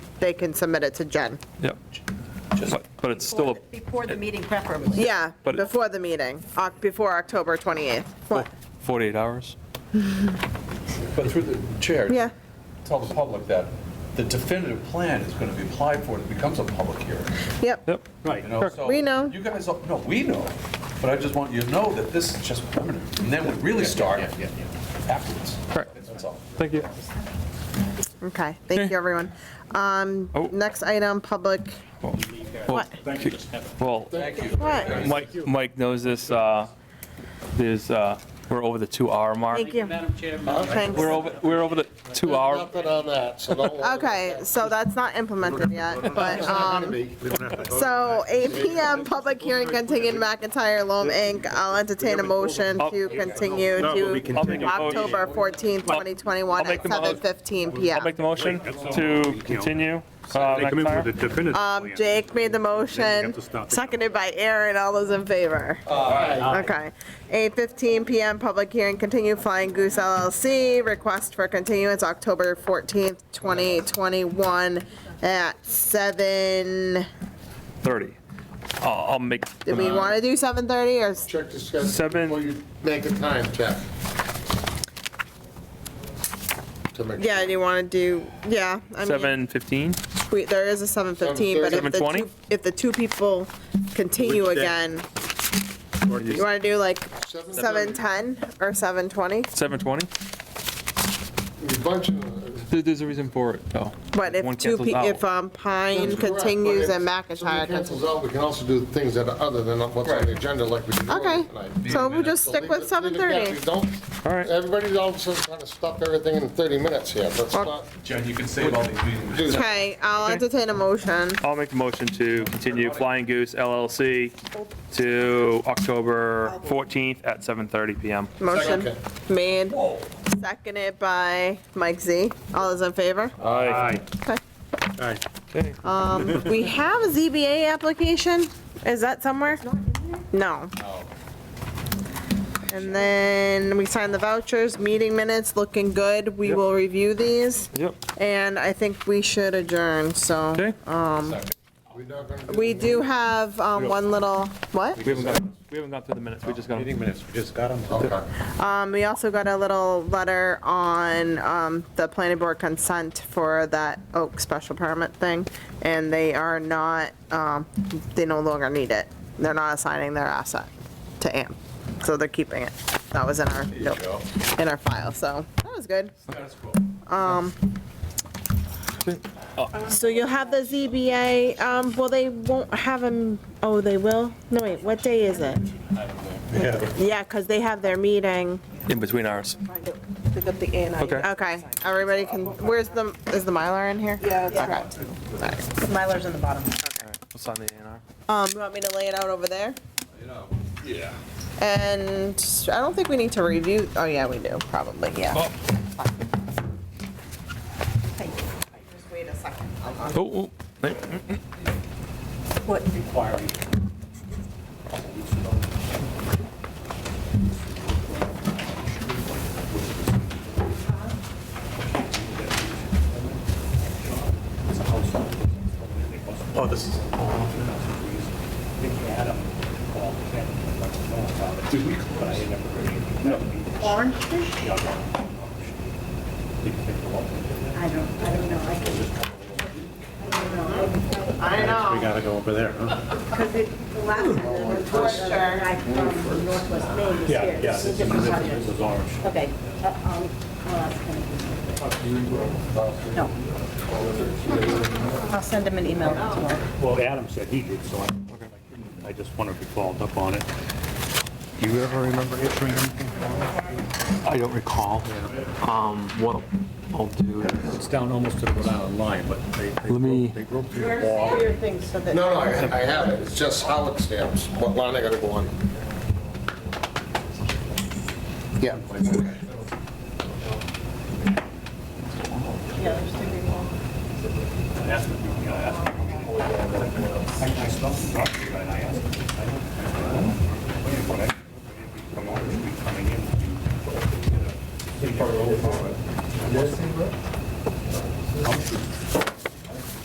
they can submit it to Jen. Yep. But- But it's still, a Before the meeting preferably. Yeah, But- before the meeting, Oc- before October 28th. What? 48 hours? But through the Oh. chair. Yeah. Tell the public that the definitive plan is going to be applied for, and it becomes a public hearing. Yep, Yep. You know, so We know. You guys, all- no, we know, but I just want you to know that this is just permanent. And then we really start afterwards. Correct. That's all. Thank you. okay, thank you, everyone. Um, Oh. Next item, public, Well, what? Well, Thank you. What? Mike, Mike knows this, uh, there's, uh, we're over the two-hour mark. Thank you. Oh, Madam Chair, Thanks. We're over, we're over the two-hour, Nothing on that, so don't worry. Okay, so that's not implemented yet, but, um, so 8 PM, public hearing continued McIntyre Loam Inc. I'll entertain a motion to continue to I'll make a mo- October 14th, I'll- 2021 I'll make at the mo- 7:15 I'll PM. make the motion to continue. uh, They come in with a McIntyre. definitive Um, plan. Jake made the Then you motion, have to stop the- seconded by Aaron, all those in favor? Okay. 8:15 PM, public hearing continued Flying Goose LLC, request for continuance October 14th, 2021 at 7, 30. I'll I'll make, do we want to do 7:30 or s- Check the schedule. Seven. Before you make a time check. To make Yeah, do you want to do, yeah, I mean, 7:15? we- there is a 7:15, but if the 7:20? two, if the two people continue Which day? again, you want to do like Seven thirty. 7:10 or 7:20? 7:20? sure. You bunch of- uh, There- There's a reason for it, though. But if One two, cancels pe- out. if um, Pine That's correct, but continues if and Somebody McIntyre cancels continues. out, we can also do things that are other than what's on the agenda like we did earlier Okay, tonight. so we'll just So stick leave with it- leave it that. 7:30. We Don't, All right. everybody's all of a sudden trying to stop everything in 30 minutes here, let's not Jen, you can save all these meetings. do that. Okay, I'll entertain a motion. I'll make the motion to continue Flying Goose LLC to October 14th at 7:30 PM. Motion Okay. made, seconded by Mike Z. All those in favor? Aye. Okay. Aye. We have a ZBA application. Is that somewhere? No. And then we sign the vouchers, meeting minutes, looking good. We Yep. will review these. Yep. And I think we should adjourn, so. Okay. We're not gonna We do have um, one little, what? We haven't gone, we haven't gone through the minutes, we just got them. minutes, we just got them. Okay. Um, We also got a little letter on um, the planning board consent for that Oak special permit thing, and they are not, um, they no longer need it. They're not assigning their asset to AM, so they're keeping it. That was in our, nope, in our file, so that was good. That's cool. So you'll have the ZBA, um, well, they won't have them, oh, they will? No, wait, what day is it? Yeah, because they have their meeting. In between ours. Pick up the A and I. Okay. Okay, everybody can, where's the, is the Mylar in here? Yeah, it's- Okay. Mylar's in the bottom. We'll sign the A and R. Um, you want me to lay it out over there? Yeah. And I don't think we need to review, oh yeah, we do, probably, yeah. Just wait a second. Oh, oh. What? Oh, this is. Orange fish? I don't, I don't know. I can- I don't know. We gotta go over there, huh? Because it, the last one, the first guy from Northwest Maine is here. This is a different subject. Okay. Uh, um, I'll ask him. No. I'll send him an email tomorrow. Well, Adam said he did, so I, I just wanted to follow up on it. Do you ever remember issuing anything? I don't recall. Um, what I'll do is, It's down almost to the bottom line, but they, they Let me- broke- they broke through the wall. No, no, I I have it, it's just how it stamps, what line I gotta go on. Yeah. I asked him, you know, I asked him. I I stopped the doctor and I asked him. I don't- I don't know. But I- From Orange Street coming in. to- They never opened it. Elm Street.